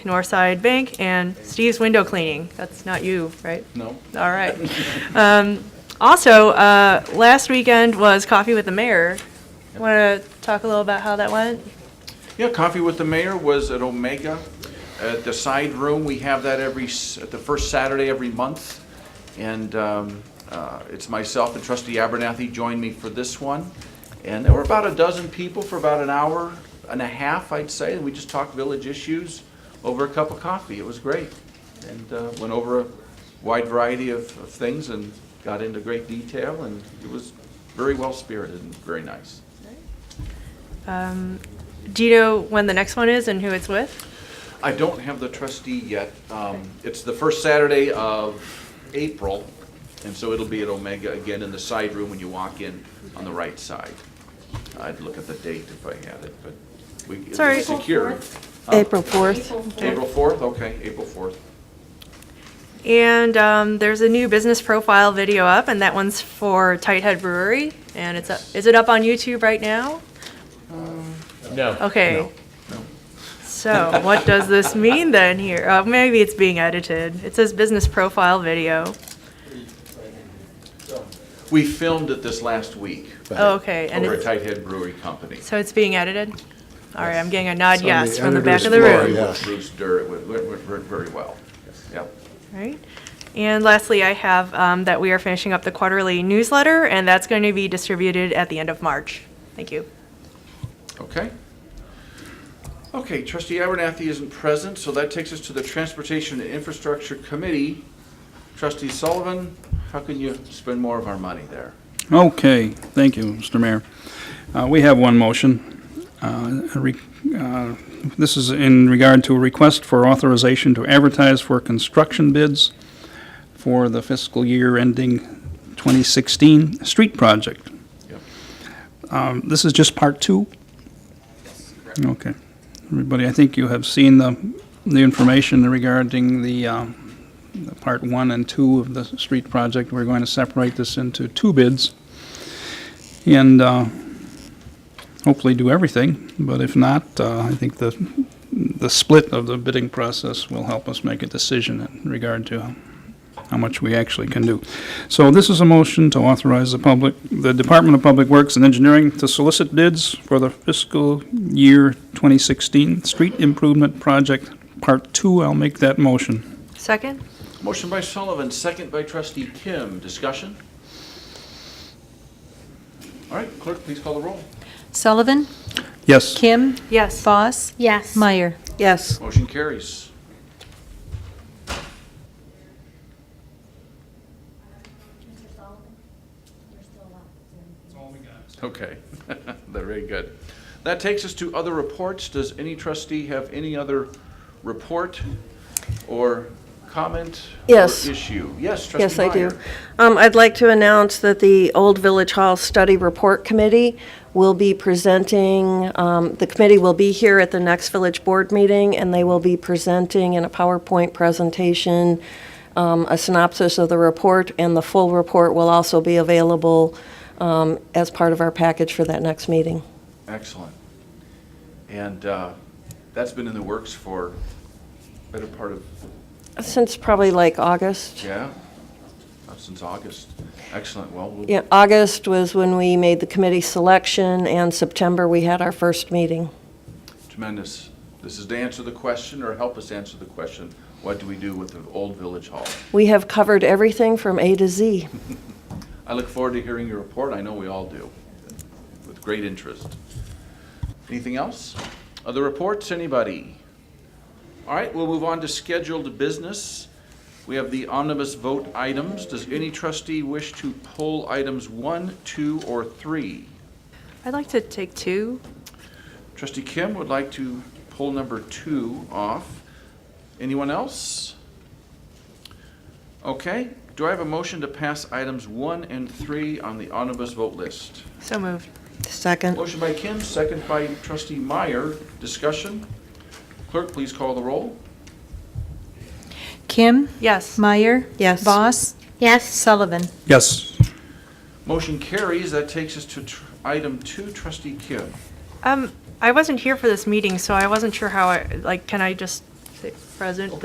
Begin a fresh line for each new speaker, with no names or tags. Northside Bank, and Steve's Window Cleaning. That's not you, right?
No.
All right. Um, Also, uh, last weekend was Coffee with the Mayor. Want to talk a little about how that went?
Yeah, Coffee with the Mayor was at Omega, at the side room. We have that every, s- at the first Saturday every month. And um, uh, it's myself and trustee Abernathy joined me for this one. And there were about a dozen people for about an hour and a half, I'd say. And we just talked village issues over a cup of coffee. It was great. And uh, went over a wide variety of of things and got into great detail. And it was very well-spirited and very nice.
Um, Do you know when the next one is and who it's with?
I don't have the trustee yet. Um, It's the first Saturday of April, and so it'll be at Omega again in the side room when you walk in on the right side. I'd look at the date if I had it, but we,
Sorry.
it's secure.
April 4th.
April 4th, okay, April 4th.
And um, there's a new business profile video up, and that one's for Tight Head Brewery. And it's, up- is it up on YouTube right now?
No.
Okay. So what does this mean then here? Uh, Maybe it's being edited. It says business profile video.
We filmed it this last week
Oh, Okay, and
over at
it's,
Tight Head Brewery Company.
so it's being edited? All right, I'm getting a nod
So
yes
the
from the back of the
editor's floor,
room.
yeah.
With Bruce Durr, it went, went- went very well. Yep.
Right. And lastly, I have um, that we are finishing up the quarterly newsletter, and that's going to be distributed at the end of March. Thank you.
Okay. Okay, trustee Abernathy isn't present, so that takes us to the Transportation and Infrastructure Committee. Trustee Sullivan, how can you spend more of our money there?
Okay, thank you, Mr. Mayor. Uh, We have one motion. Uh, a re- uh, This is in regard to a request for authorization to advertise for construction bids for the fiscal year ending 2016 street project.
Yep.
Um, This is just part two? Okay. Everybody, I think you have seen the, the information regarding the um, the part one and two of the street project. We're going to separate this into two bids and uh, hopefully do everything. But if not, uh, I think the, the split of the bidding process will help us make a decision in regard to how much we actually can do. So this is a motion to authorize the public, the Department of Public Works and Engineering to solicit bids for the fiscal year 2016 Street Improvement Project Part Two. I'll make that motion.
Second?
Motion by Sullivan, second by trustee Kim. Discussion? All right, clerk, please call the roll.
Sullivan,
Yes.
Kim,
Yes.
Boss,
Yes.
Meyer. Yes.
Motion carries. Okay, very good. That takes us to other reports. Does any trustee have any other report or comment?
Yes.
Or issue? Yes,
Yes,
trustee
I
Meyer.
do. Um, I'd like to announce that the Old Village Hall Study Report Committee will be presenting, um, the committee will be here at the next village board meeting, and they will be presenting in a PowerPoint presentation, um, a synopsis of the report, and the full report will also be available um, as part of our package for that next meeting.
Excellent. And uh, that's been in the works for better part of,
Since probably like August.
yeah, uh, since August. Excellent. Well, we'll
Yeah, August was when we made the committee selection, and September, we had our first meeting.
Tremendous. This is to answer the question or help us answer the question, what do we do with the old village hall?
We have covered everything from A to Z.
I look forward to hearing your report. I know we all do, with great interest. Anything else? Other reports, anybody? All right, we'll move on to scheduled business. We have the omnibus vote items. Does any trustee wish to pull items one, two, or three?
I'd like to take two.
Trustee Kim would like to pull number two off. Anyone else? Okay, do I have a motion to pass items one and three on the omnibus vote list?
So moved.
Second.
Motion by Kim, second by trustee Meyer. Discussion? Clerk, please call the roll.
Kim,
Yes.
Meyer.
Yes.
Boss,
Yes.
Sullivan.
Yes.
Motion carries. That takes us to tr- item two, trustee Kim.
Um, I wasn't here for this meeting, so I wasn't sure how I, like, can I just they- present,